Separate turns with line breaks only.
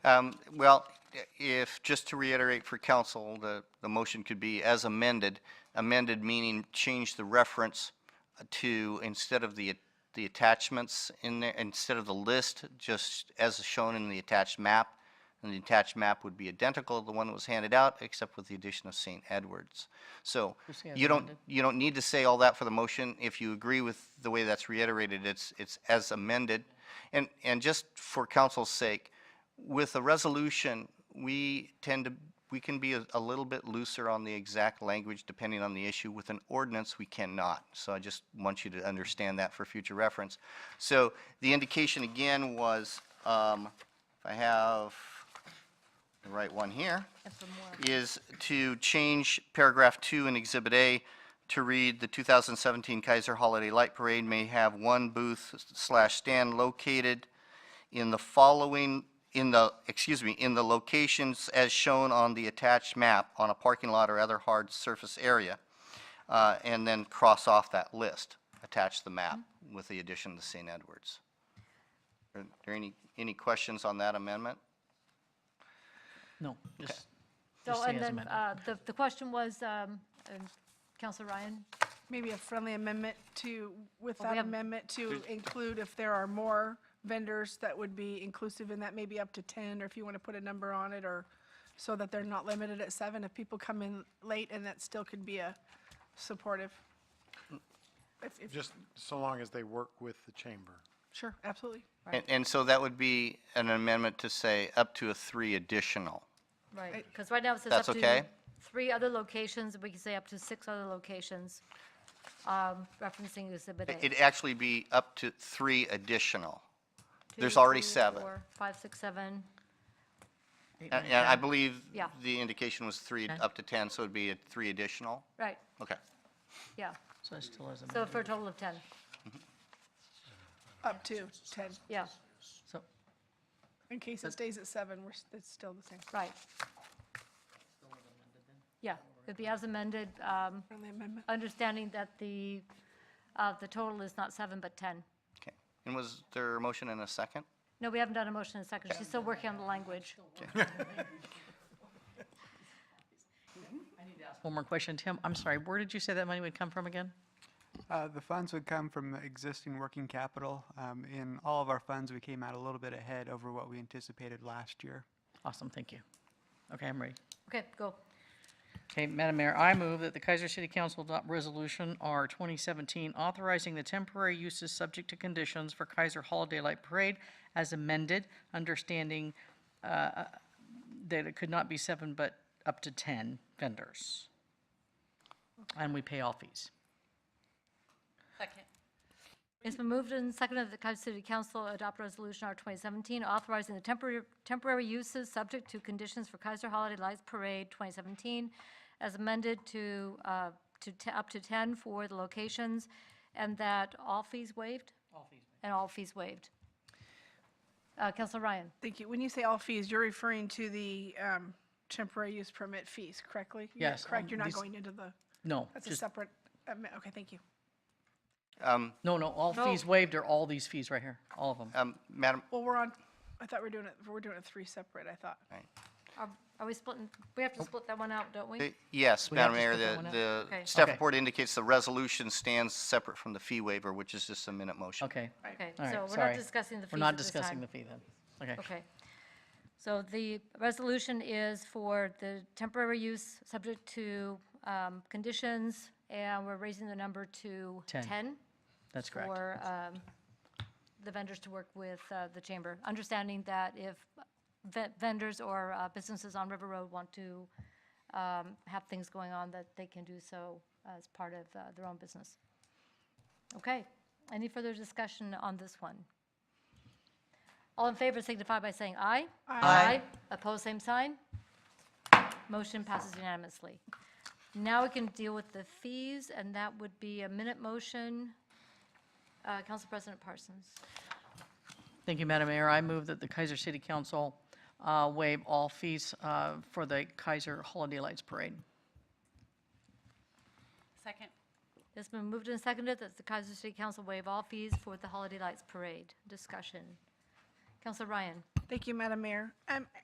Um, Well, if, just to reiterate for council, the, the motion could be as amended. Amended meaning change the reference uh, to, instead of the, the attachments in there, instead of the list, just as shown in the attached map. And the attached map would be identical to the one that was handed out, except with the addition of St. Edwards. So you don't, you don't need to say all that for the motion. If you agree with the way that's reiterated, it's, it's as amended. And, and just for council's sake, with a resolution, we tend to, we can be a, a little bit looser on the exact language depending on the issue. With an ordinance, we cannot. So I just want you to understand that for future reference. So the indication again was, um, if I have the right one here, is to change paragraph two in Exhibit A to read, "The 2017 Kaiser Holiday Light Parade may have one booth slash stand located in the following, in the, excuse me, in the locations as shown on the attached map on a parking lot or other hard surface area, uh, and then cross off that list, attach the map with the addition to St. Edwards. Are there any, any questions on that amendment?
No, just,
So,
Just say
and
as
then,
amended.
uh, the, the question was, um, um, Counselor Ryan,
Maybe a friendly amendment to, with
Well, we
that
have-
amendment to include if there are more vendors that would be inclusive in that, maybe up to 10, or if you want to put a number on it, or so that they're not limited at seven, if people come in late, and that still could be a supportive. If- if-
Just so long as they work with the chamber.
Sure, absolutely.
And, and so that would be an amendment to say up to a three additional.
right, because right now it says up
That's okay?
to three other locations, we can say up to six other locations, um, referencing Exhibit A.
It'd actually be up to three additional. There's
Two,
already
three,
seven.
four, five, six, seven.
eight,
And
nine,
and I
10.
believe
Yeah.
the indication was three,
Okay.
up to 10, so it'd be a three additional?
right,
Okay.
yeah,
so it still has
so
amended.
for a total of 10,
Up to 10.
yeah,
So,
In case it stays at seven, we're, s- it's still the same.
right. Yeah, it'd be as amended, um,
Friendly amendment.
understanding that the, uh, the total is not seven, but 10.
Okay. And was there a motion and a second?
No, we haven't done a motion in a second, she's still working on the language.
one more question, Tim, I'm sorry, where did you say that money would come from again?
Uh, The funds would come from existing working capital. Um, In all of our funds, we came out a little bit ahead over what we anticipated last year.
Awesome, thank you. Okay, I'm ready.
Okay, go.
Okay, Madam Mayor, I move that the Kaiser City Council adopt Resolution R 2017 authorizing the temporary uses subject to conditions for Kaiser Holiday Light Parade as amended, understanding uh, that it could not be seven but up to 10 vendors. And we pay all fees.
It's been moved and seconded that the Kaiser City Council adopt Resolution R. 2017, authorizing the temporary temporary uses subject to conditions for Kaiser Holiday Lights Parade 2017, as amended to, uh, to te- up to 10 for the locations, and that all fees waived? All fees. And all fees waived. Uh, Counselor Ryan?
Thank you. When you say all fees, you're referring to the um, temporary use permit fees, correctly? You're
Yes,
Correct,
um,
you're not
these-
going into the,
No,
that's a
just,
separate, um, okay, thank you.
Um,
no, no, all fees waived are all these fees right here, all of them.
um, Madam,
Well, we're on, I thought we we're doing it, we're doing it three separate, I thought.
Are are we splitting, we have to split that one out, don't
uh,
we?
yes,
have
Madam
to
Mayor,
split that
the,
one up?
the
Okay.
staff
Okay.
report indicates the resolution stands separate from the fee waiver, which is just a minute motion.
Okay, all
Okay,
right,
so we're
sorry.
not discussing the fees
We're not
at this
discussing
time.
the fee then. Okay.
Okay. So the resolution is for the temporary use, subject to um, conditions, and we're raising the number to
Ten.
10
That's correct.
for um, the vendors to work with uh, the chamber, understanding that if ve- vendors or uh, businesses on River Road want to um, have things going on, that they can do so as part of uh, their own business. Okay. Any further discussion on this one? All in favor signify by saying aye. Aye. Opposed, same sign. Motion passes unanimously. Now we can deal with the fees, and that would be a minute motion. Uh, Council President Parsons.
Thank you, Madam Mayor. I move that the Kaiser City Council uh, waive all fees uh, for the Kaiser Holiday Lights Parade.
Second.
It's been moved and seconded that the Kaiser City Council waive all fees for the Holiday Lights Parade. Discussion. Counselor Ryan?
Thank you, Madam Mayor. Um,